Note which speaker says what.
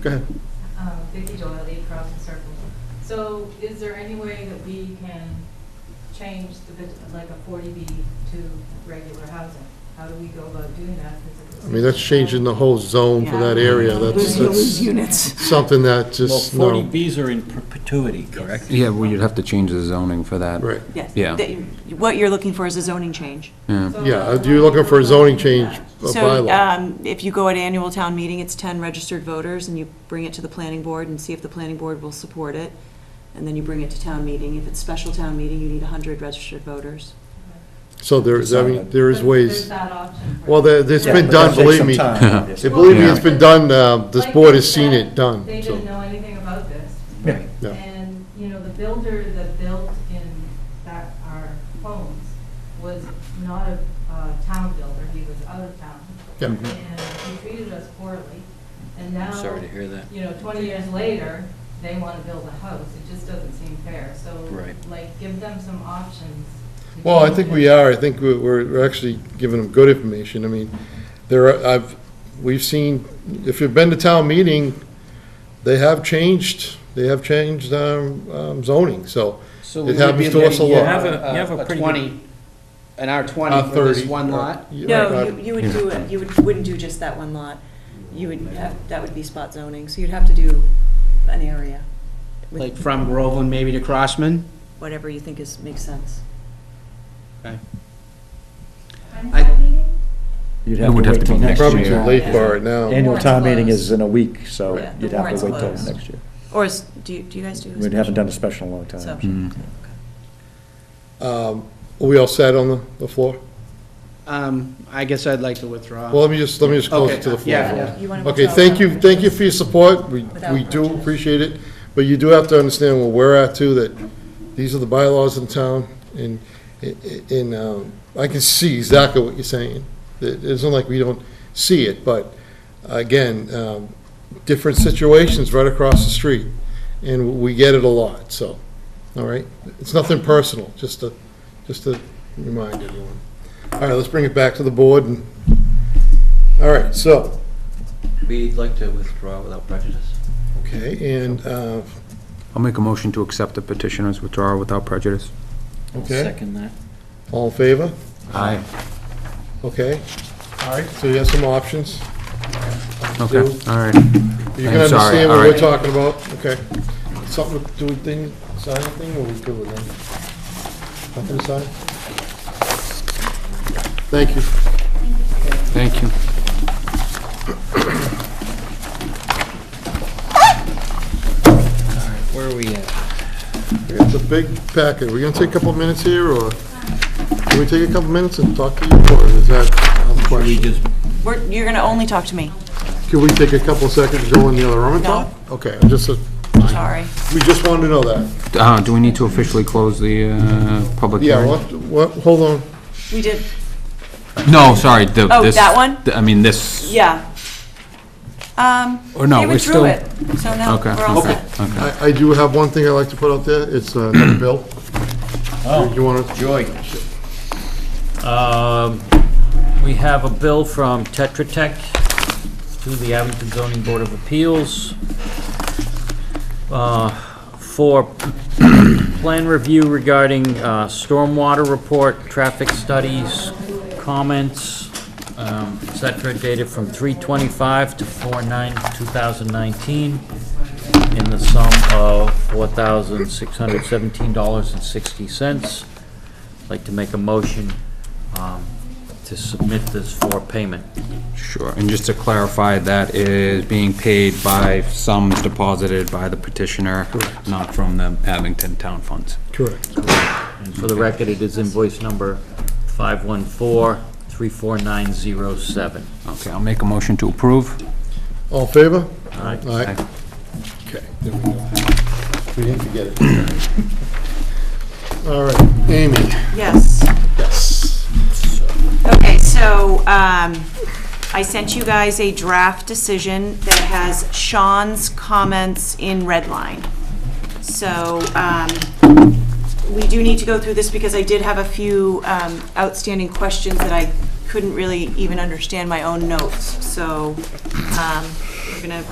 Speaker 1: Go ahead.
Speaker 2: Um, Vicki Doyle, Eight Crossing Circles. So is there any way that we can change the, bit- like a forty B to regular housing? How do we go about doing that? 'Cause it's-
Speaker 1: I mean, that's changing the whole zone for that area. That's,
Speaker 3: Lose- You'll lose
Speaker 1: that's
Speaker 3: units.
Speaker 1: something that
Speaker 4: Well,
Speaker 1: just,
Speaker 4: forty
Speaker 1: no.
Speaker 4: Bs are in perpetuity, correct?
Speaker 5: Yeah, well, you'd have to change the zoning for that.
Speaker 1: Right.
Speaker 3: Yes.
Speaker 5: Yeah.
Speaker 3: That- What you're looking for is a zoning change.
Speaker 5: Yeah.
Speaker 2: So
Speaker 1: Yeah,
Speaker 2: how-
Speaker 1: if you're looking for a zoning change a
Speaker 3: So
Speaker 1: bylaw.
Speaker 3: um, if you go at annual town meeting, it's 10 registered voters, and you bring it to the planning board and see if the planning board will support it, and then you bring it to town meeting. If it's special town meeting, you need 100 registered voters.
Speaker 1: So there's, I mean, there is
Speaker 2: But There's
Speaker 1: ways,
Speaker 2: that option. for-
Speaker 1: well, there, it's
Speaker 4: Yeah,
Speaker 1: been
Speaker 4: but
Speaker 1: done,
Speaker 4: that'll take
Speaker 1: believe
Speaker 4: some
Speaker 1: me.
Speaker 4: time,
Speaker 5: Yeah.
Speaker 4: obviously.
Speaker 1: Believe me,
Speaker 2: Yeah.
Speaker 1: it's been done, uh, this
Speaker 2: Like
Speaker 1: board
Speaker 2: they
Speaker 1: has seen
Speaker 2: said,
Speaker 1: it done,
Speaker 2: They
Speaker 1: so,
Speaker 2: didn't know anything about this.
Speaker 4: Yeah.
Speaker 1: yeah.
Speaker 2: And, you know, the builder that built in that, our homes was not a uh, town builder, he was out of town.
Speaker 1: Yeah.
Speaker 2: And he treated us poorly, and now.
Speaker 4: Mm-hmm. Sorry to hear that.
Speaker 2: You know, twenty years later, they want to build a house, it just doesn't seem fair, so.
Speaker 4: Right.
Speaker 2: Like, give them some options. to
Speaker 1: Well, I
Speaker 2: change
Speaker 1: think
Speaker 2: it.
Speaker 1: we are, I think we- we're we're actually giving them good information, I mean, there, are- I've, we've seen, if you've been to town meeting, they have changed, they have changed um, um, zoning, so,
Speaker 6: So
Speaker 1: It
Speaker 6: we would
Speaker 1: happens
Speaker 6: be
Speaker 1: to us a
Speaker 6: looking
Speaker 1: lot. You
Speaker 6: at
Speaker 1: have
Speaker 4: a- you have a pretty good-
Speaker 6: Uh, twenty, an R
Speaker 1: uh,
Speaker 6: twenty for
Speaker 1: thirty.
Speaker 6: this one
Speaker 1: uh,
Speaker 6: lot?
Speaker 1: yeah,
Speaker 3: No,
Speaker 1: uh,
Speaker 3: you- you would do, it. you would- wouldn't do just that one lot. You would, have- that would be spot zoning, so you'd have to do an area
Speaker 6: Like
Speaker 3: with
Speaker 6: from Groveland maybe to Crossman?
Speaker 3: whatever you think is, makes sense.
Speaker 6: I-
Speaker 7: You'd
Speaker 5: It would have to be next
Speaker 1: Probably
Speaker 5: year.
Speaker 1: too late for it now.
Speaker 7: Annual
Speaker 2: Warrant's
Speaker 7: town meeting
Speaker 2: closed.
Speaker 7: is in a week, so
Speaker 3: Yeah, the
Speaker 7: you'd have
Speaker 3: warrant's
Speaker 7: to wait till
Speaker 3: closed.
Speaker 7: next year.
Speaker 3: Or is, do you do you guys do? a
Speaker 7: We haven't
Speaker 3: special?
Speaker 7: done a special in a long
Speaker 3: It's
Speaker 7: time.
Speaker 3: optional.
Speaker 5: Mm.
Speaker 3: Okay.
Speaker 1: Um, Are we all set on the- the floor?
Speaker 6: Um, I guess I'd like to withdraw.
Speaker 1: Well, let me just, let me just close it
Speaker 6: Okay,
Speaker 1: to the floor.
Speaker 6: yeah,
Speaker 1: for a
Speaker 6: yeah.
Speaker 3: You wanna
Speaker 1: Okay,
Speaker 3: withdraw
Speaker 1: thank
Speaker 3: without
Speaker 1: you, thank you
Speaker 3: prejudice?
Speaker 1: for your support, we,
Speaker 3: Without
Speaker 1: we do
Speaker 3: prejudice.
Speaker 1: appreciate it, but you do have to understand where we're at too, that these are the bylaws in town, and, i- i- and, um, I can see exactly what you're saying. It, it's not like we don't see it, but, again, um, different situations right across the street, and we get it a lot, so, all right? It's nothing personal, just to, just to remind everyone. All right, let's bring it back to the board, and, all right, so,
Speaker 8: We'd like to withdraw without prejudice.
Speaker 1: Okay, and, uh,
Speaker 5: I'll make a motion to accept the petitioner's withdrawal without prejudice.
Speaker 1: okay,
Speaker 4: Second that.
Speaker 1: all in favor?
Speaker 5: Aye.
Speaker 1: Okay. All right. So you have some options.
Speaker 5: Okay,
Speaker 1: Do-
Speaker 5: all right.
Speaker 1: You can
Speaker 5: I'm sorry,
Speaker 1: understand
Speaker 5: all
Speaker 1: what we're
Speaker 5: right.
Speaker 1: talking about, okay. Something, to do we think, sign anything, or we good with that? Nothing to sign? Thank you.
Speaker 5: Thank you.
Speaker 4: Where are we at?
Speaker 1: It's a big packet. We're gonna take a couple minutes here, or can we take a couple minutes and talk to you, or is that a
Speaker 4: Should we
Speaker 1: question?
Speaker 4: just
Speaker 3: We're, you're gonna only talk to me,
Speaker 1: Can we take a couple seconds, to go in the other room and
Speaker 3: No.
Speaker 1: talk? Okay, I'm just,
Speaker 3: sorry.
Speaker 1: we just wanted to know that.
Speaker 5: Uh, do we need to officially close the, uh, public
Speaker 1: Yeah,
Speaker 5: hearing?
Speaker 1: what, what, hold on.
Speaker 3: We did,
Speaker 5: No, sorry, the,
Speaker 3: Oh,
Speaker 5: this.
Speaker 3: that one?
Speaker 5: th- I mean, this.
Speaker 3: yeah. Um,
Speaker 5: Or no,
Speaker 3: they
Speaker 5: we're
Speaker 3: withdrew
Speaker 5: still-
Speaker 3: it, so now
Speaker 5: Okay,
Speaker 3: we're all
Speaker 5: okay,
Speaker 3: set.
Speaker 5: okay.
Speaker 1: I, I do have one thing I'd like to put out there, it's uh, another bill. Do you want to,
Speaker 4: Joy.
Speaker 9: Um, We have a bill from Tetra Tech to the Abington Zoning Board of Appeals uh, for plan review regarding uh, stormwater report, traffic studies, comments, um, et cetera, dated from 325 to 4/9/2019 in the sum of $4,617.60. Like to make a motion um, to submit this for payment.
Speaker 5: Sure, and just to clarify, that is being paid by sums deposited by the petitioner, not from the Abington Town Funds.
Speaker 1: correct.
Speaker 9: And for the record, it is invoice number 514-34907.
Speaker 5: Okay, I'll make a motion to approve.
Speaker 1: All in favor?
Speaker 9: All right?
Speaker 1: Aye.
Speaker 5: Aye.
Speaker 1: Okay, there we go. We didn't forget it. All right, Amy.
Speaker 3: Yes.
Speaker 1: Yes.
Speaker 3: Okay, so um, I sent you guys a draft decision that has Sean's comments in red line. So um, we do need to go through this because I did have a few um, outstanding questions that I couldn't really even understand my own notes. So um, we're going to